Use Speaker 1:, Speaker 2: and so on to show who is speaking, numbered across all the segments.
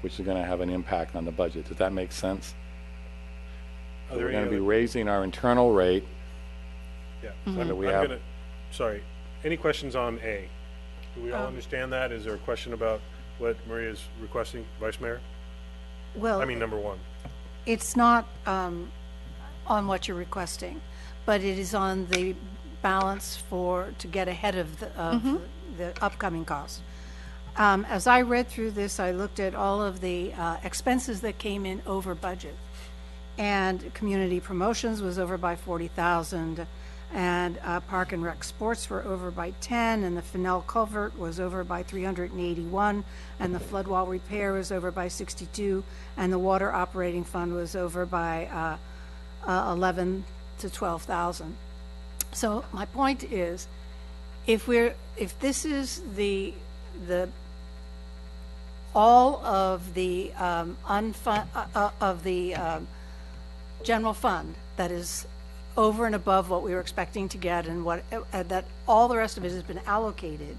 Speaker 1: which is going to have an impact on the budget. Does that make sense?
Speaker 2: Are there
Speaker 1: We're
Speaker 2: any
Speaker 1: going to be
Speaker 2: other-
Speaker 1: raising our internal rate.
Speaker 2: Yeah,
Speaker 1: Mhm.
Speaker 3: Mm-hmm.
Speaker 2: I'm,
Speaker 1: we
Speaker 2: I'm
Speaker 1: have-
Speaker 2: gonna, sorry, any questions on A? Do we
Speaker 3: Um.
Speaker 2: all understand that? Is there a question about what Maria's requesting, Vice Mayor? I
Speaker 4: Well,
Speaker 2: mean, number one.
Speaker 4: it's not um, on what you're requesting, but it is on the balance for, to get ahead of the, of the upcoming cost. Um, As I read through this, I looked at all of the uh, expenses that came in over budget. And community promotions was over by 40,000, and uh, Park and Rec Sports were over by 10, and the Fennel Culvert was over by 381, and the flood wall repair was over by 62, and the water operating fund was over by uh, uh, 11 to 12,000. So my point is, if we're, if this is the, the, all of the um, unfun, uh, uh, of the um, general fund that is over and above what we were expecting to get and what, uh, that all the rest of it has been allocated.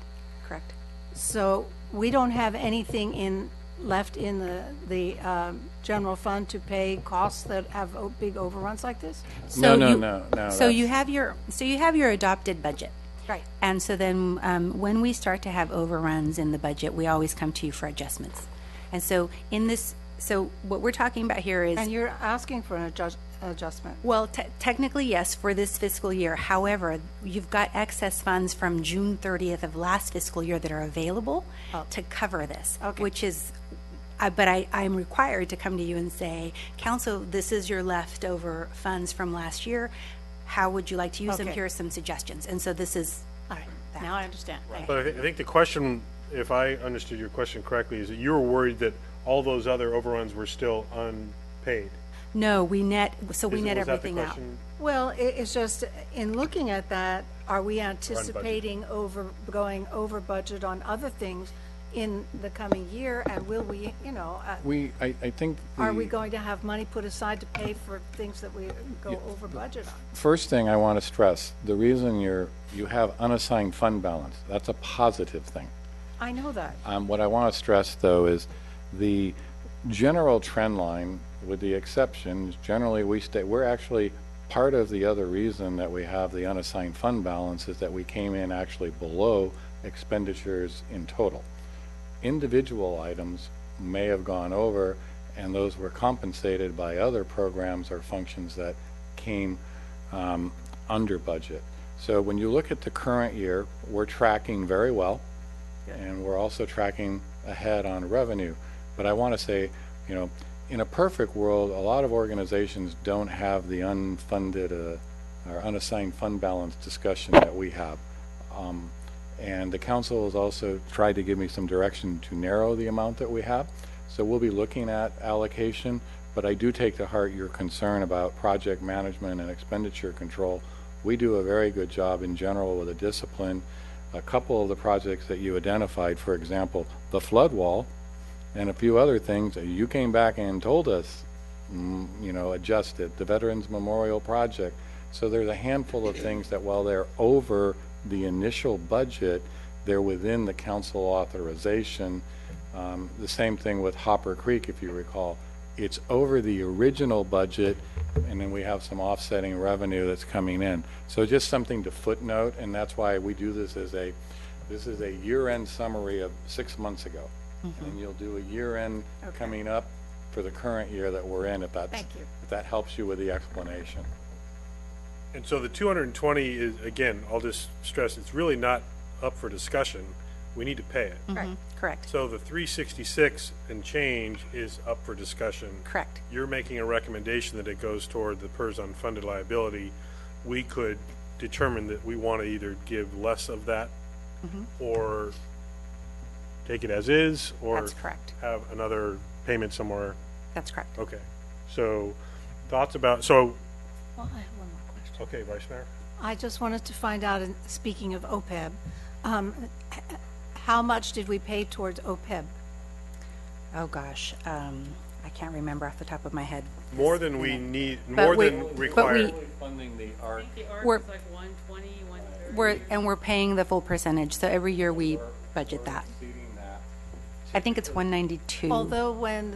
Speaker 3: Correct.
Speaker 4: So we don't have anything in, left in the, the um, general fund to pay costs that have o- big overruns like this?
Speaker 1: No,
Speaker 3: So
Speaker 1: no,
Speaker 3: you-
Speaker 1: no, no.
Speaker 3: So you
Speaker 1: that's-
Speaker 3: have your, so you have your adopted budget.
Speaker 4: Right.
Speaker 3: And so then, um, when we start to have overruns in the budget, we always come to you for adjustments. And so in this, so what we're talking about here is.
Speaker 4: And you're asking for an adjust- adjustment.
Speaker 3: Well, te- technically, yes, for this fiscal year. However, you've got excess funds from June 30th of last fiscal year that are available to cover this,
Speaker 4: Okay.
Speaker 3: which is, I- but I, I'm required to come to you and say, council, this is your leftover funds from last year. How would you like to use them?
Speaker 4: Okay.
Speaker 3: Here are some suggestions. And so this is
Speaker 4: All right,
Speaker 3: that.
Speaker 4: now I understand. Thank you.
Speaker 2: But I thi- I think the question, if I understood your question correctly, is that you were worried that all those other overruns were still unpaid.
Speaker 3: No, we net, so we
Speaker 2: Is-
Speaker 3: net
Speaker 2: was that the
Speaker 3: everything out.
Speaker 2: question?
Speaker 4: Well, i it's just, in looking at that, are we anticipating over, going over budget on other things in the coming year? And will we, you know, uh,
Speaker 1: We, I, I think.
Speaker 4: are
Speaker 1: the-
Speaker 4: we going to have money put aside to pay for things that we go over budget on?
Speaker 1: First thing I want to stress, the reason you're, you have unassigned fund balance, that's a positive thing.
Speaker 4: I know that.
Speaker 1: Um, What I want to stress, though, is the general trend line, with the exceptions, generally, we stay, we're actually, part of the other reason that we have the unassigned fund balance is that we came in actually below expenditures in total. Individual items may have gone over, and those were compensated by other programs or functions that came um, under budget. So when you look at the current year, we're tracking very well and we're also tracking ahead on revenue. But I want to say, you know, in a perfect world, a lot of organizations don't have the unfunded uh, or unassigned fund balance discussion that we have. Um, And the council has also tried to give me some direction to narrow the amount that we have. So we'll be looking at allocation, but I do take to heart your concern about project management and expenditure control. We do a very good job in general with a discipline a couple of the projects that you identified, for example, the flood wall and a few other things, you came back and told us, mm, you know, adjust it, the Veterans Memorial Project. So there's a handful of things that while they're over the initial budget, they're within the council authorization. Um, The same thing with Hopper Creek, if you recall. It's over the original budget, and then we have some offsetting revenue that's coming in. So just something to footnote, and that's why we do this as a, this is a year-end summary of six months ago. And then you'll do a year-end coming up for the current year that we're in, if that's,
Speaker 4: Thank you.
Speaker 1: if that helps you with the explanation.
Speaker 2: And so the 220 is, again, I'll just stress, it's really not up for discussion. We need to pay it.
Speaker 3: Mm.
Speaker 4: Right.
Speaker 3: Correct,
Speaker 2: So the 366 and change is up for discussion.
Speaker 3: correct.
Speaker 2: You're making a recommendation that it goes toward the PERS unfunded liability. We could determine that we want to either give less of that
Speaker 3: Mm-hmm.
Speaker 2: or take it as is or
Speaker 3: That's correct.
Speaker 2: have another payment somewhere.
Speaker 3: That's correct.
Speaker 2: Okay. So thoughts about, so,
Speaker 4: Well, I have one more question.
Speaker 2: okay, Vice Mayor?
Speaker 4: I just wanted to find out, and speaking of OPEB, um, h- how much did we pay towards E OPEB?
Speaker 3: Oh, gosh. Um, I can't remember off the top of my head.
Speaker 2: More than we need,
Speaker 3: But
Speaker 2: more
Speaker 3: we-
Speaker 2: than
Speaker 3: but
Speaker 2: required.
Speaker 3: we-
Speaker 1: Funding the ARC
Speaker 5: The arc
Speaker 3: We're-
Speaker 5: is like 120, 130.
Speaker 3: We're, and we're paying the full percentage, so every year we budget that.
Speaker 1: exceeding that,
Speaker 6: I think it's 192.
Speaker 3: Although when